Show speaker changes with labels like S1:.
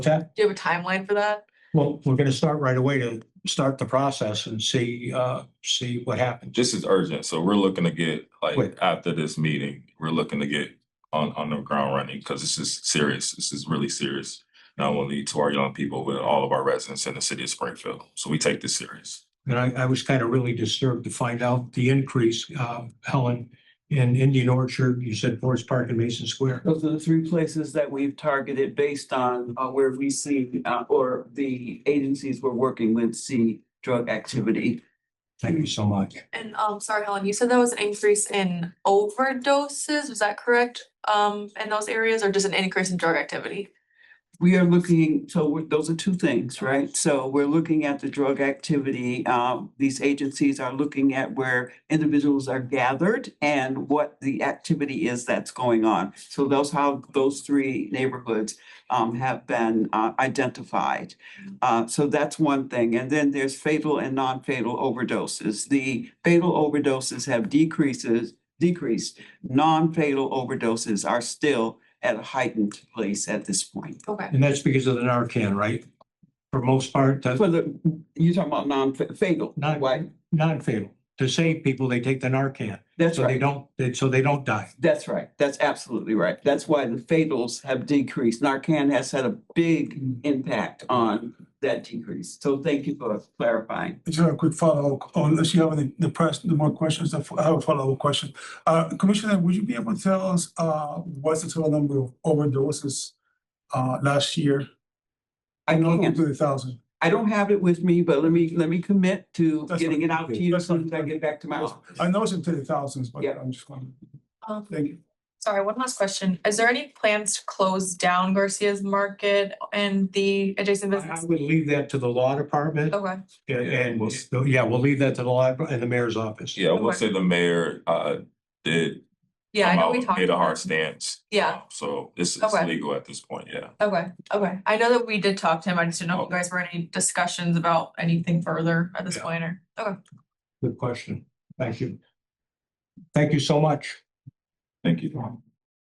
S1: that?
S2: Do you have a timeline for that?
S1: Well, we're gonna start right away to start the process and see, uh, see what happens.
S3: Just as urgent, so we're looking to get,
S1: Quick.
S3: like, after this meeting, we're looking to get on, on the ground running, because this is serious, this is really serious. Not only to our young people, but all of our residents in the city of Springfield, so we take this serious.
S1: And I, I was kind of really disturbed to find out the increase, uh, Helen, in Indian Orchard, you said Forest Park and Mason Square.
S4: Those are the three places that we've targeted based on uh, where we see, uh, or the agencies we're working with see drug activity.
S1: Thank you so much.
S2: And um, sorry, Helen, you said that was an increase in overdoses, was that correct? Um, in those areas or just an increase in drug activity?
S4: We are looking, so we're- those are two things, right? So we're looking at the drug activity. Um, These agencies are looking at where individuals are gathered and what the activity is that's going on. So those, how those three neighborhoods um, have been uh, identified. Uh, So that's one thing. And then there's fatal and non-fatal overdoses. The fatal overdoses have decreases, decreased. Non-fatal overdoses are still at a heightened place at this point.
S2: Okay,
S1: And that's because of the Narcan, right? For most part, that's
S4: For the, you talking about non-fatal,
S1: Not-
S4: right?
S1: non-fatal. To save people, they take the Narcan,
S4: That's
S1: so they
S4: right.
S1: don't, they- so they don't die.
S4: That's right. That's absolutely right. That's why the fatals have decreased. Narcan has had a big
S5: Mm.
S4: impact on that decrease. So thank you for clarifying.
S5: Just have a quick follow-up, or unless you have any, the press, the more questions, I have a follow-up question. Uh, Commissioner, would you be able to tell us, uh, what's the total number of overdoses, uh, last year?
S4: I
S5: Not
S4: can't,
S5: to the thousand.
S4: I don't have it with me, but let me, let me commit to
S5: That's
S4: getting
S5: fine.
S4: it out to
S5: Okay.
S4: you as
S5: That's
S4: soon as
S5: fine.
S4: I get back to my office.
S5: I know it's into the thousands, but
S4: Yeah.
S5: I'm just wondering.
S2: um,
S5: Thank you.
S2: sorry, one last question. Is there any plans to close down Garcia's Market and the adjacent
S1: I I
S2: business?
S1: would leave that to the law department
S2: Okay,
S1: and, and- yeah, we'll leave that to the law and the mayor's office.
S3: Yeah, I will
S2: Okay.
S3: say the mayor, uh, did.
S2: yeah, I
S3: come
S2: know
S3: out
S2: we
S3: and
S2: talked.
S3: Made a
S2: about
S3: hard
S2: it.
S3: stance.
S2: Yeah.
S3: um, So this is
S2: Okay.
S3: legal at this point, yeah.
S2: Okay, okay. I know that we did talk to him. I just didn't know if you
S3: Okay.
S2: guys were in any discussions about anything further at this
S1: Yeah.
S2: point or, okay.
S1: Good question. Thank you. Thank you so much.
S3: Thank you.